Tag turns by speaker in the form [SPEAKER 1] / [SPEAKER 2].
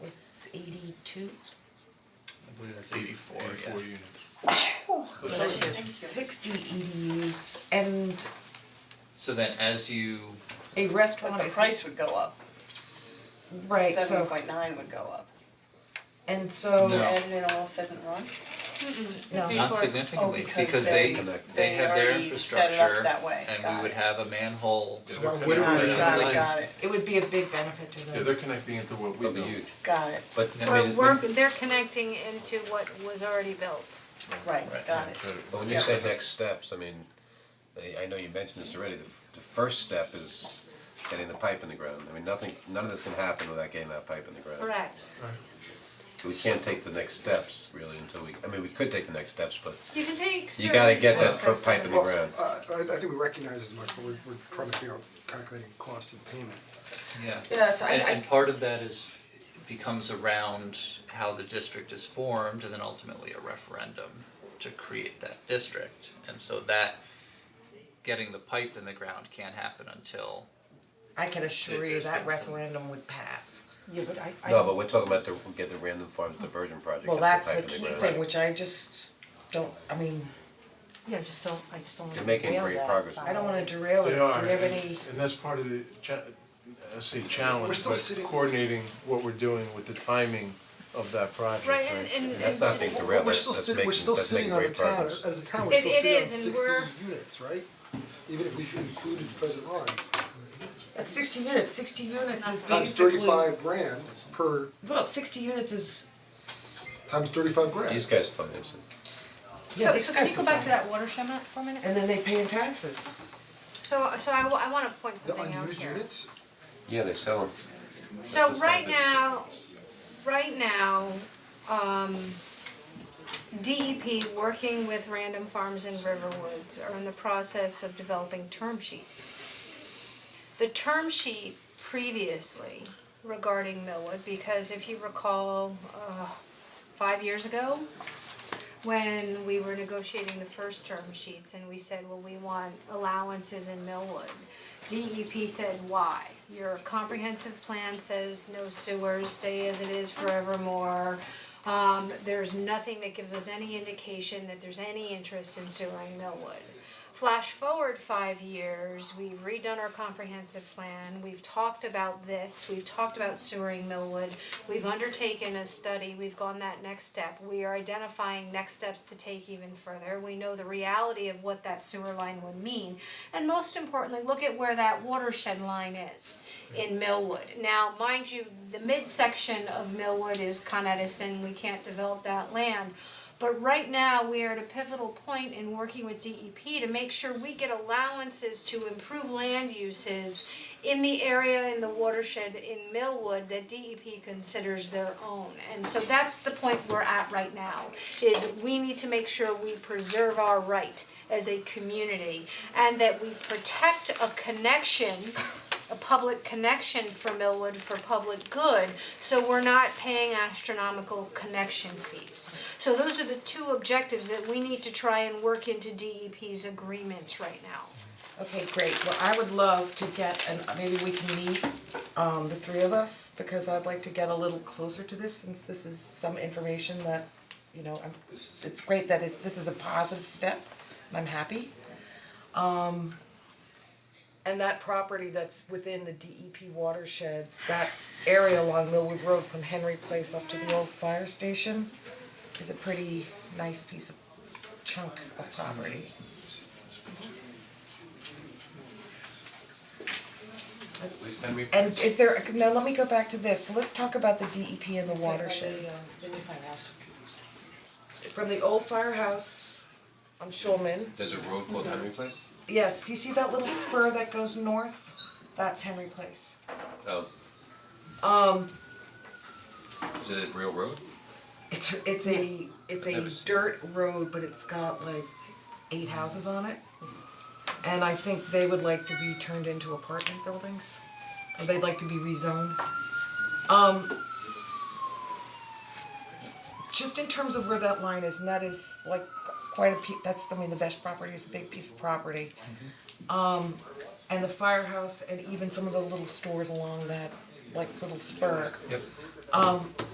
[SPEAKER 1] two,
[SPEAKER 2] I believe that's eighty-four, yeah.
[SPEAKER 3] Four units.
[SPEAKER 1] sixty EDUs and
[SPEAKER 2] So then as you,
[SPEAKER 1] a
[SPEAKER 4] But
[SPEAKER 1] restaurant
[SPEAKER 4] the
[SPEAKER 1] is-
[SPEAKER 4] price would go up,
[SPEAKER 1] right,
[SPEAKER 4] seven
[SPEAKER 1] so,
[SPEAKER 4] point nine would go up.
[SPEAKER 1] and so,
[SPEAKER 2] No.
[SPEAKER 4] And in all Pheasant Run,
[SPEAKER 1] no,
[SPEAKER 2] not
[SPEAKER 4] oh,
[SPEAKER 2] significantly,
[SPEAKER 4] because
[SPEAKER 2] because they,
[SPEAKER 4] they,
[SPEAKER 2] they
[SPEAKER 4] they
[SPEAKER 2] have their
[SPEAKER 4] already set it up
[SPEAKER 2] infrastructure
[SPEAKER 4] that way,
[SPEAKER 2] and we
[SPEAKER 4] got
[SPEAKER 2] would
[SPEAKER 4] it,
[SPEAKER 2] have a manhole.
[SPEAKER 5] So why
[SPEAKER 3] Yeah,
[SPEAKER 5] wouldn't
[SPEAKER 4] got
[SPEAKER 2] Right
[SPEAKER 4] it,
[SPEAKER 5] we?
[SPEAKER 4] got it,
[SPEAKER 2] outside.
[SPEAKER 4] got it,
[SPEAKER 1] it would be a big benefit to them.
[SPEAKER 3] Yeah, they're connecting into what we
[SPEAKER 2] It'll be
[SPEAKER 3] know.
[SPEAKER 2] huge,
[SPEAKER 4] got it,
[SPEAKER 2] but I
[SPEAKER 6] Or
[SPEAKER 2] mean,
[SPEAKER 6] we're,
[SPEAKER 2] when-
[SPEAKER 6] they're connecting into what was already built.
[SPEAKER 4] right, got it,
[SPEAKER 7] But when you say next steps, I mean, I I know you mentioned this already, the f- the first step is getting the pipe in the ground. I mean, nothing, none of this can happen without getting that pipe in the ground.
[SPEAKER 6] Correct.
[SPEAKER 7] We can't take the next steps really until we, I mean, we could take the next steps, but
[SPEAKER 6] You can take
[SPEAKER 7] you gotta
[SPEAKER 6] certain
[SPEAKER 7] get that
[SPEAKER 6] aspects
[SPEAKER 7] foot pipe
[SPEAKER 6] of
[SPEAKER 7] in
[SPEAKER 6] it.
[SPEAKER 7] the ground.
[SPEAKER 5] Well, Uh, I I think we recognize as much, but we're we're trying to figure out calculating cost and payment.
[SPEAKER 2] yeah.
[SPEAKER 1] Yeah, so I-
[SPEAKER 2] And
[SPEAKER 1] I-
[SPEAKER 2] and part of that is, becomes around how the district is formed and then ultimately a referendum to create that district. And so that, getting the pipe in the ground can't happen until,
[SPEAKER 1] I can assure you
[SPEAKER 2] There's
[SPEAKER 1] that
[SPEAKER 2] been some-
[SPEAKER 1] referendum would pass.
[SPEAKER 8] Yeah, but I,
[SPEAKER 7] No, but we're talking about the, get the Random Farms diversion project,
[SPEAKER 1] Well,
[SPEAKER 7] get the pipe
[SPEAKER 1] that's
[SPEAKER 7] in the
[SPEAKER 1] the
[SPEAKER 7] ground.
[SPEAKER 1] key thing, which I just don't, I mean,
[SPEAKER 8] yeah, I just don't, I just don't wanna
[SPEAKER 7] You're making
[SPEAKER 8] derail
[SPEAKER 7] great
[SPEAKER 8] that
[SPEAKER 7] progress.
[SPEAKER 8] by-
[SPEAKER 1] I don't wanna derail it,
[SPEAKER 3] They
[SPEAKER 1] do you
[SPEAKER 3] are,
[SPEAKER 1] have any,
[SPEAKER 3] and and that's part of the cha- I say
[SPEAKER 5] We're
[SPEAKER 3] challenge,
[SPEAKER 5] still
[SPEAKER 3] but
[SPEAKER 5] sitting-
[SPEAKER 3] coordinating what we're doing with the timing of that project,
[SPEAKER 6] Right, and and and
[SPEAKER 7] That's not
[SPEAKER 6] just,
[SPEAKER 7] being derailed,
[SPEAKER 5] We're
[SPEAKER 7] that's
[SPEAKER 5] still
[SPEAKER 7] that's
[SPEAKER 5] sitting,
[SPEAKER 7] making,
[SPEAKER 5] we're still
[SPEAKER 7] that's
[SPEAKER 5] sitting
[SPEAKER 7] making
[SPEAKER 5] on the
[SPEAKER 7] great
[SPEAKER 5] town,
[SPEAKER 7] progress.
[SPEAKER 5] as a town, we're
[SPEAKER 6] It-
[SPEAKER 5] still
[SPEAKER 6] it
[SPEAKER 5] sitting on
[SPEAKER 6] is, and
[SPEAKER 5] sixty
[SPEAKER 6] we're-
[SPEAKER 5] units, right? Even if we included Pheasant Run,
[SPEAKER 1] that's sixty units, sixty units is
[SPEAKER 5] times
[SPEAKER 1] basically,
[SPEAKER 5] thirty-five grand per,
[SPEAKER 1] well, sixty units is,
[SPEAKER 5] times thirty-five grand.
[SPEAKER 7] These guys finance it.
[SPEAKER 1] yeah,
[SPEAKER 6] so
[SPEAKER 1] these
[SPEAKER 6] so can
[SPEAKER 1] guys
[SPEAKER 6] you go
[SPEAKER 1] would
[SPEAKER 6] back to
[SPEAKER 1] find
[SPEAKER 6] that watershed map for a minute?
[SPEAKER 1] And then they pay in taxes.
[SPEAKER 6] So so I wa- I wanna point
[SPEAKER 5] The
[SPEAKER 6] something out here.
[SPEAKER 5] unused units,
[SPEAKER 7] Yeah, they sell them.
[SPEAKER 6] So
[SPEAKER 7] That's a side
[SPEAKER 6] right
[SPEAKER 7] business.
[SPEAKER 6] now, right now, um, DEP, working with Random Farms and Riverwoods, are in the process of developing term sheets. The term sheet previously regarding Millwood, because if you recall, uh, five years ago, when we were negotiating the first term sheets and we said, well, we want allowances in Millwood. DEP said, why? Your comprehensive plan says no sewers, stay as it is forevermore. Um, there's nothing that gives us any indication that there's any interest in sewering Millwood. Flash forward five years, we've redone our comprehensive plan, we've talked about this, we've talked about sewering Millwood, we've undertaken a study, we've gone that next step, we are identifying next steps to take even further, we know the reality of what that sewer line would mean, and most importantly, look at where that watershed line is in Millwood. Now, mind you, the midsection of Millwood is Con Edison, we can't develop that land, but right now, we are at a pivotal point in working with DEP to make sure we get allowances to improve land uses in the area in the watershed in Millwood that DEP considers their own. And so that's the point we're at right now, is we need to make sure we preserve our right as a community and that we protect a connection a public connection for Millwood for public good, so we're not paying astronomical connection fees. So those are the two objectives that we need to try and work into DEP's agreements right now.
[SPEAKER 1] Okay, great, well, I would love to get, and maybe we can meet, um, the three of us, because I'd like to get a little closer to this, since this is some information that, you know, I'm, it's great that it, this is a positive step, and I'm happy. Um, and that property that's within the DEP watershed, that area along Millwood Road from Henry Place up to the old fire station, is a pretty nice piece of chunk of property. Let's-
[SPEAKER 3] And we-
[SPEAKER 1] and is there, now let me go back to this, so let's talk about the DEP and the
[SPEAKER 8] Except by
[SPEAKER 1] watershed.
[SPEAKER 8] the, uh, the new firehouse.
[SPEAKER 1] From the old firehouse on Shulman,
[SPEAKER 7] There's a road called Henry Place?
[SPEAKER 1] yes, you see that little spur that goes north? That's Henry Place.
[SPEAKER 7] Oh,
[SPEAKER 1] Um,
[SPEAKER 7] is it a real road?
[SPEAKER 1] It's it's a it's
[SPEAKER 7] I've
[SPEAKER 1] a
[SPEAKER 7] never seen
[SPEAKER 1] dirt road, but it's got like eight houses on it. And I think they would like to be turned into apartment buildings. Or they'd like to be rezoned. Um just in terms of where that line is, and that is like quite a piece, that's, I mean, the Vesh property is a big piece of property.
[SPEAKER 7] Mm-hmm.
[SPEAKER 1] Um and the firehouse and even some of the little stores along that, like little spur.
[SPEAKER 2] Yep.
[SPEAKER 1] Um